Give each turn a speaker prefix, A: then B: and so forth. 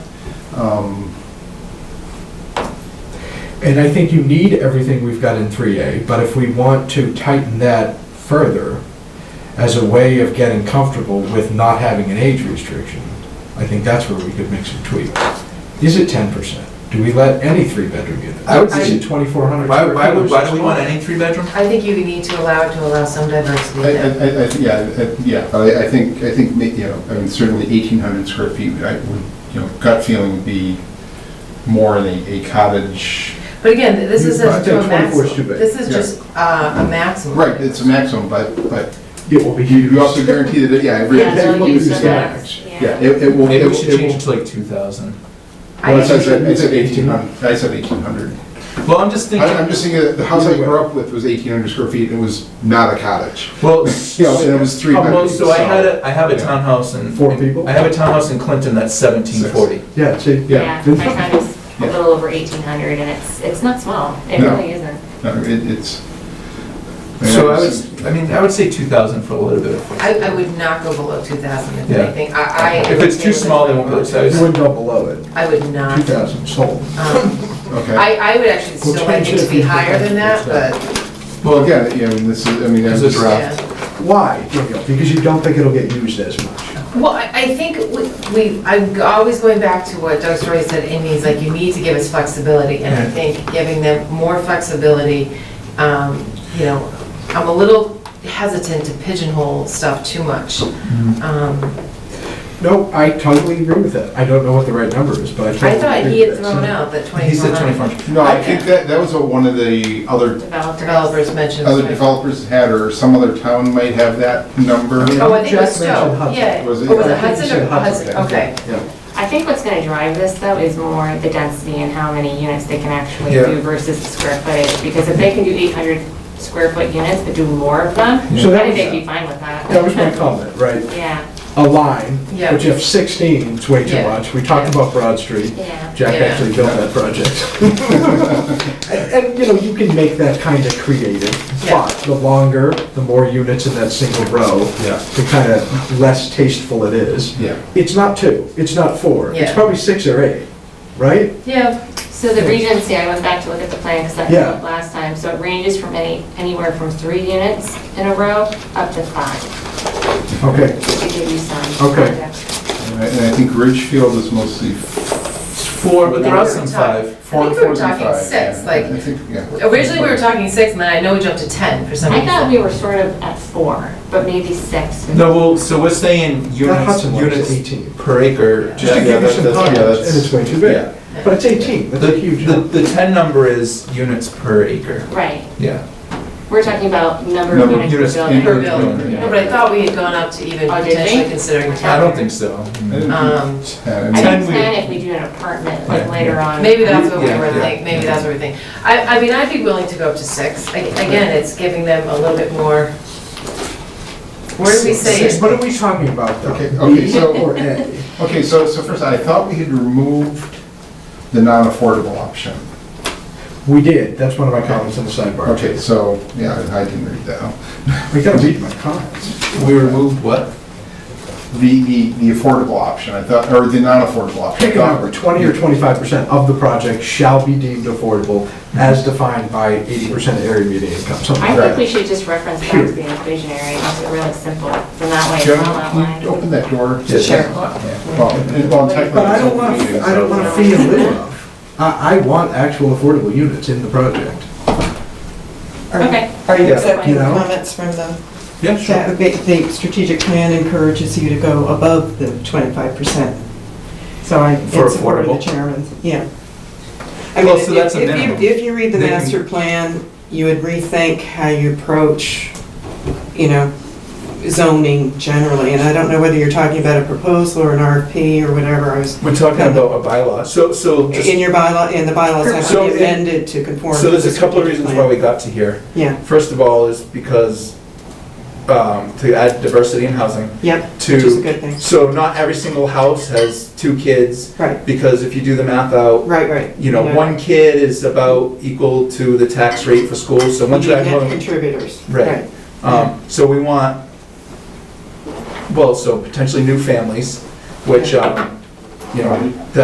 A: Um, And I think you need everything we've got in 3A, but if we want to tighten that further as a way of getting comfortable with not having an age restriction, I think that's where we could make some tweaks. Is it 10%? Do we let any three-bedroom unit?
B: I would
A: Is it 2,400?
B: Why,
A: square
B: why
A: feet or
B: would, why do we
A: something?
B: want any three-bedroom?
C: I think you need to allow it to allow some diversity
D: I,
C: there.
D: I, I, th- yeah, I- yeah, I, I think, I think, ma- you know, I mean, certainly eighteen hundred square feet, I would, you know, gut feeling would be more in a, a cottage.
C: But again, th- this
A: You-
C: is
A: I
C: a-
A: think
C: to a
A: 24 is too
C: maximum.
A: big.
C: This is
D: Yeah.
C: just uh, a maximum.
D: Right, it's a maximum, but, but
A: It will be
D: you
A: huge.
D: you also guarantee that, yeah, every.
E: Yeah, they'll
D: every-
E: use the
D: yeah,
E: max,
D: Yeah,
E: yeah.
D: it, it will. it
B: Maybe we
D: will-
B: should
D: it
B: change
D: will-
B: it to like two thousand.
C: I
D: Well, I
C: think-
D: said, I said eighteen hundred, I said eighteen hundred.
B: Well, I'm just
D: I, I'm
B: thinking,
D: just thinking that the house I
A: Either way.
D: grew up with was eighteen hundred square feet, and it was not a cottage.
B: well,
D: You know, and it was three
B: Well,
D: bedrooms.
B: So I had
D: so-
B: a, I have a
D: Yeah.
B: townhouse in.
A: Four people?
B: I have a townhouse in Clinton that's seventeen forty.
A: Yeah, see,
E: Yeah, my town is a
D: Yeah.
E: little over 1,800, and it's, it's not small, it
D: No.
E: really isn't.
D: No, it, it's.
B: So I would, I mean, I would say two thousand for a little bit of.
C: I,
B: flexibility.
C: I would not go below 2,000 if
B: Yeah.
C: anything. I, I. I
B: If
C: would
B: it's
C: stay
B: too
C: with the
B: small, they won't go to
C: 2,000.
A: You wouldn't go below it,
C: I would not.
A: 2,000 sold.
C: Um,
D: Okay.
C: I, I would actually
A: We'll
C: still like
A: change
C: it
A: it
C: to
A: if
C: be
A: you-
C: higher than that, but,
D: Well, again, yeah, I mean, this is, I mean,
B: This
D: that's
B: is
D: a
B: rough.
D: draft.
C: yeah.
A: Why, Danielle? Because you don't think it'll get used as much.
C: Well, I, I think we- we, I'm always going back to what Doug Story said, it means like you need to give us flexibility, and I think giving them more flexibility, um, you know, I'm a little hesitant to pigeonhole stuff too much. Um,
A: No, I totally agree with that. I don't know what the right number is, but I
C: I
A: totally
C: thought
A: agree
C: he had
A: with
C: thrown
A: that.
C: out that
B: He said
C: 2,400
B: twenty-four.
D: No, I think that, that was what one of the other,
E: Developers.
C: developers mentioned.
D: other developers had, or some other town might have that number.
C: Oh, I think it was
A: Jack mentioned
C: Stowe,
A: Hudson.
C: yeah.
D: Was it?
C: Oh, was
D: I
C: it
D: think he
C: Hudson or
A: said Hudson,
C: Hudson? Okay.
A: Yeah.
E: I think what's gonna drive this, though, is more the density and how many units they can actually
B: Yeah.
E: do versus the square footage, because if they can do 800 square foot units, but do more of them,
A: So that
E: I think
A: was-
E: they'd be fine with that.
A: That was my comment, right?
E: Yeah,
A: A line,
C: Yeah.
A: which if 16, it's way too
C: Yeah.
A: much. We talked
C: Yeah.
A: about Broad Street.
E: yeah.
A: Jack
C: Yeah.
A: actually built that project. And, and, you know, you can make that kind of creative,
C: Yeah.
A: but the longer, the more units in that single row,
D: Yeah,
A: the kind of less tasteful it is.
D: yeah.
A: It's not two, it's not four, it's
C: Yeah.
A: probably six or eight, right?
C: Yeah,
E: So the Regency, I went back to look at the plan, because that came
A: Yeah.
E: up last time, so it ranges from any, anywhere from three units in a row up to five,
A: Okay.
E: to give you some.
A: Okay.
E: context.
D: And I- and I think Ridgefield is mostly
B: Four, but there are some
C: I
B: five.
D: four,
C: think we
D: four
C: were
D: and
C: talking
D: five.
C: six,
D: yeah.
C: like-
D: I think, yeah.
C: originally we were talking six, and then I know we jumped to 10 for some
E: I
C: reason.
E: thought we were sort of at four, but maybe six.
B: No, well, so we're saying
A: That
B: units,
A: Hudson one is
B: units
A: 18.
B: per acre.
D: Just to
B: Yeah,
D: give
B: yeah,
D: you
B: that-
D: some
B: that's- yeah,
D: context.
B: that's-
A: And it's way too
D: Yeah,
A: big. But it's 18, that's
B: The,
A: a huge number.
B: the, the ten number is units per acre.
E: Right,
B: Yeah.
E: we're talking about number of
D: Number of
E: units per
B: units
E: building.
C: Per building.
B: Yeah.
C: No, but I thought we had gone up to even
E: Oh, did we?
C: potentially considering
B: I
C: 10.
B: don't think so.
D: I think
C: Um,
E: I
D: 10,
B: Ten
E: think
B: we-
E: ten if we do an apartment, like
B: Yeah.
E: later on.
C: Maybe that's what we
B: Yeah,
C: were
B: yeah.
C: thinking, maybe that's what we're thinking. I, I mean, I'd be willing to go up to six. A- Again, it's giving them a little bit more, where do we say
A: Six,
C: it?
A: What are we talking about, though?
D: Okay, okay,
A: B
D: so-
A: Or A?
D: Okay, so, so first, I thought we had removed the non-affordable option.
A: We did, that's one of my comments in the sidebar.
D: Okay, so, yeah, I didn't read that.
A: We gotta read my comments.
B: We removed what?
D: The, the, the affordable option, I thought, or the non-affordable option. I
A: Pick a
D: thought-
A: number, 20 or 25% of the project shall be deemed affordable as defined by 80% of area median income, something
E: I
A: like
E: think
A: that.
E: we should just reference back to the inclusionary, and make it really simple, then that way it's all
D: Joan, can you
E: outlined.
D: open that door?
B: Yeah,
E: Sure.
B: yeah.
D: Well, it- well, technically.
A: But I don't
D: it's open
A: want,
D: meetings,
A: I
D: so-
A: don't want a fee in lieu of. I, I want actual affordable units in the project.
F: Are-
E: Okay.
F: Are you
B: Yeah.
F: accepting
A: You
F: the
A: know?
F: comments from the,
B: Yeah,
F: that the the strategic plan encourages you to go above the 25%? So I,
B: For
F: in support of the
B: affordable?
F: chairman's, yeah. I
B: Well,
F: mean,
B: so that's a
F: if- if you-
B: minimum.
F: If you read the
B: They can-
F: master plan, you would rethink how you approach, you know, zoning generally. And I don't know whether you're talking about a proposal or an RFP or whatever, I was,
B: We're talking about a bylaw. So, so just
F: in your bylaw, in the bylaws have
B: So
F: to
B: it-
F: be amended to conform.
B: So
F: to
B: there's
F: the
B: a couple of
F: strategic
B: reasons why
F: plan.
B: we got to here.
F: Yeah,
B: First of all is because, um, to add diversity in housing,
F: yep, which is a
B: to,
F: good thing.
B: so not every single house has two kids,
F: Right,
B: because if you do the math out,
F: right, right.
B: you know, one kid is about equal to the tax rate for school, so once you
F: You
B: add
F: net
B: home,
F: contributors.
B: Right. um, so we want, well, so potentially new families, which, um, you know,